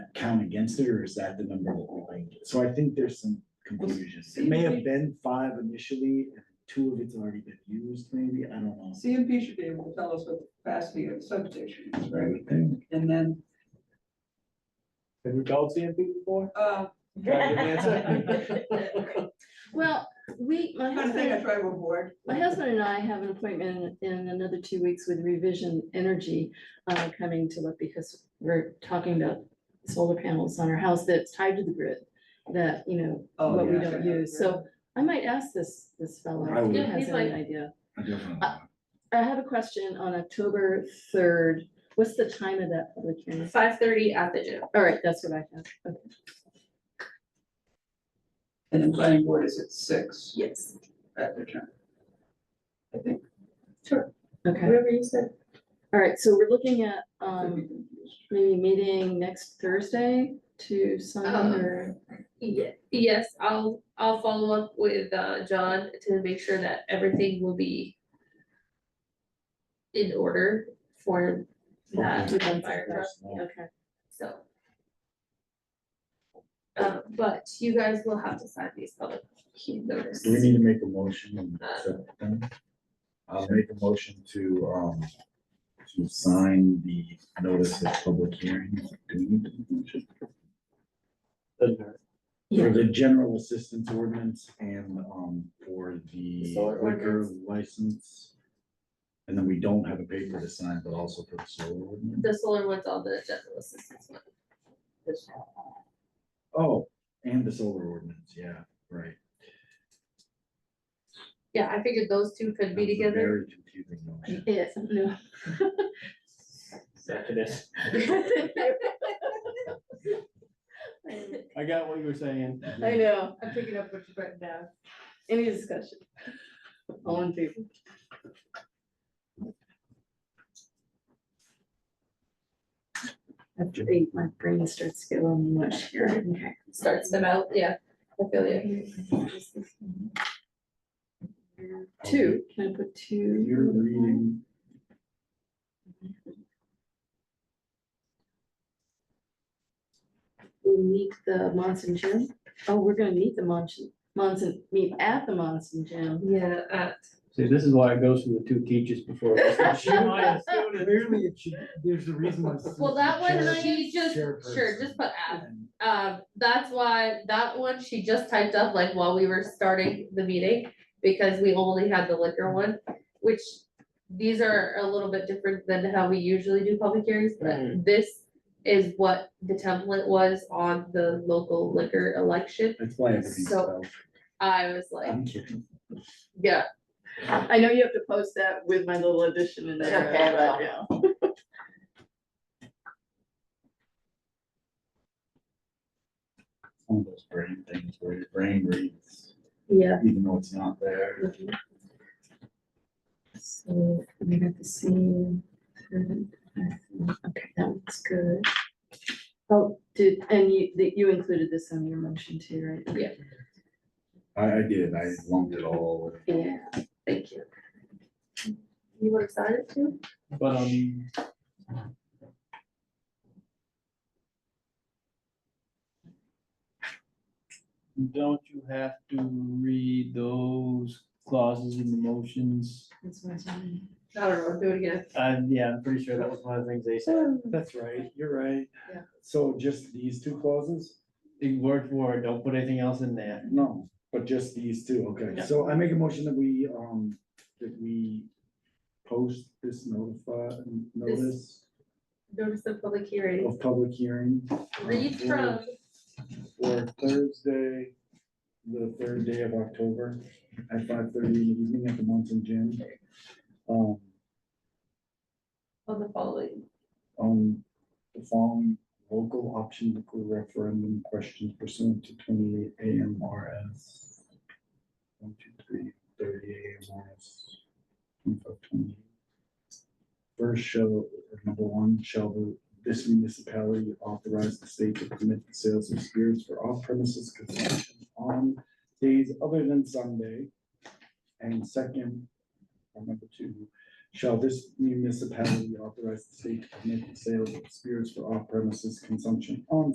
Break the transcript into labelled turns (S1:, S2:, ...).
S1: town against it, or is that the number that we like? So I think there's some confusion. It may have been five initially, and two of it's already been used, maybe, I don't know.
S2: CMP should be able to tell us what the capacity of the substation is,
S1: I
S2: right?
S1: would think.
S2: And then,
S3: Have you called CMP before?
S2: uh,
S4: Well, we, my
S2: kind of thing I
S4: husband,
S2: try to avoid.
S4: my husband and I have an appointment in another two weeks with Revision Energy uh, coming to look because we're talking about solar panels on our house that's tied to the grid that, you know,
S2: Oh,
S4: what we
S2: yeah.
S4: don't use. So I might ask this, this fellow
S1: I
S4: if
S1: would.
S4: he
S1: Yeah,
S4: has
S5: he's
S4: any
S5: like-
S4: idea.
S1: I definitely.
S4: I have a question on October third. What's the time of that public hearing?
S5: Five thirty at the gym.
S4: All right, that's what I have. Okay.
S2: And the planning board is at six
S4: Yes.
S2: at the time. I think.
S4: Okay,
S5: Whatever you said.
S4: all right, so we're looking at,
S2: could be
S4: um,
S2: confused.
S4: maybe meeting next Thursday to sign
S5: Um,
S4: or,
S5: Ye- yes, I'll, I'll follow up with, uh, John to make sure that everything will be in order for that
S4: Okay.
S5: fire truck,
S4: okay.
S5: so. Uh, but you guys will have to sign these public key notice.
S1: Do we need to make a motion? and accept them? I'll make a motion to, um, to sign the notice of public hearing. Do we need to do motion?
S3: Doesn't hurt.
S4: Yeah.
S1: For the general assistance ordinance and, um, for the
S3: Solar
S1: liquor
S5: ordinance.
S1: license. And then we don't have a paper to sign, but also for the solar ordinance.
S5: The solar ones, all the general assistance one.
S1: Oh, and the solar ordinance, yeah, right.
S5: Yeah, I figured those two could be
S1: That was a
S5: together.
S1: Very confusing motion.
S4: Yes, no.
S3: After this. I got what you were saying.
S4: I know,
S5: I'm picking up what you written down.
S4: any discussion? All in favor? After eight, my brain starts going mush here, okay.
S5: Starts them out, yeah, I feel you.
S4: Two, can I put two?
S1: You're reading.
S4: We meet the Monson Gym, oh, we're gonna meet the Monson, Monson, meet at the Monson Gym.
S5: Yeah, uh,
S3: See, this is why it goes through the two teachers before.
S1: Clearly, it should, there's a reason why.
S5: well, that one, she just, sure, just put at, um, that's why, that one, she just typed up like while we were starting the meeting. Because we only had the liquor one, which, these are a little bit different than how we usually do public hearings, but
S3: Mhm.
S5: this. Is what the template was on the local liquor election,
S1: That's why everything's
S5: So-
S1: spelled.
S5: I was like,
S1: I'm kidding.
S5: yeah,
S4: I know you have to post that with my little addition in there.
S5: Okay, I
S4: but
S5: will.
S4: yeah.
S1: It's One of those brain things where your brain reads,
S5: yeah.
S1: even though it's not there.
S4: So we got the same. Okay, that looks good. Oh, did, and you, that you included this on your motion too, right?
S1: I, I did, I lumped it all with.
S4: Yeah.
S5: Thank you. You were excited too?
S3: But, um, don't you have to read those clauses in the motions?
S4: that's what I was wondering.
S5: I don't know, do it again.
S3: Uh, yeah, I'm pretty sure that was one of the things they said.
S1: That's right, you're right.
S5: Yeah.
S1: So just these two clauses?
S3: They word for word, don't put anything else in there.
S1: No, but just these two, okay,
S3: Yeah.
S1: so I make a motion that we, um, that we post this notify, notice
S5: Notice of public hearing,
S1: of public hearing. um,
S5: read
S1: for-
S5: from,
S1: For Thursday, the third day of October, at five thirty in the evening at the Munson Gym. Um,
S5: on the following,
S1: on the following local option liquor referendum questions pursuant to twenty-eight AMRS. One, two, three, thirty AMRS. 2528. First shall, number one, shall the- this municipality authorize the state to permit the sales of spirits for off premises consumption on days other than Sunday? And second, or number two, Shall this municipality authorize the state to permit the sale of spirits for off premises consumption on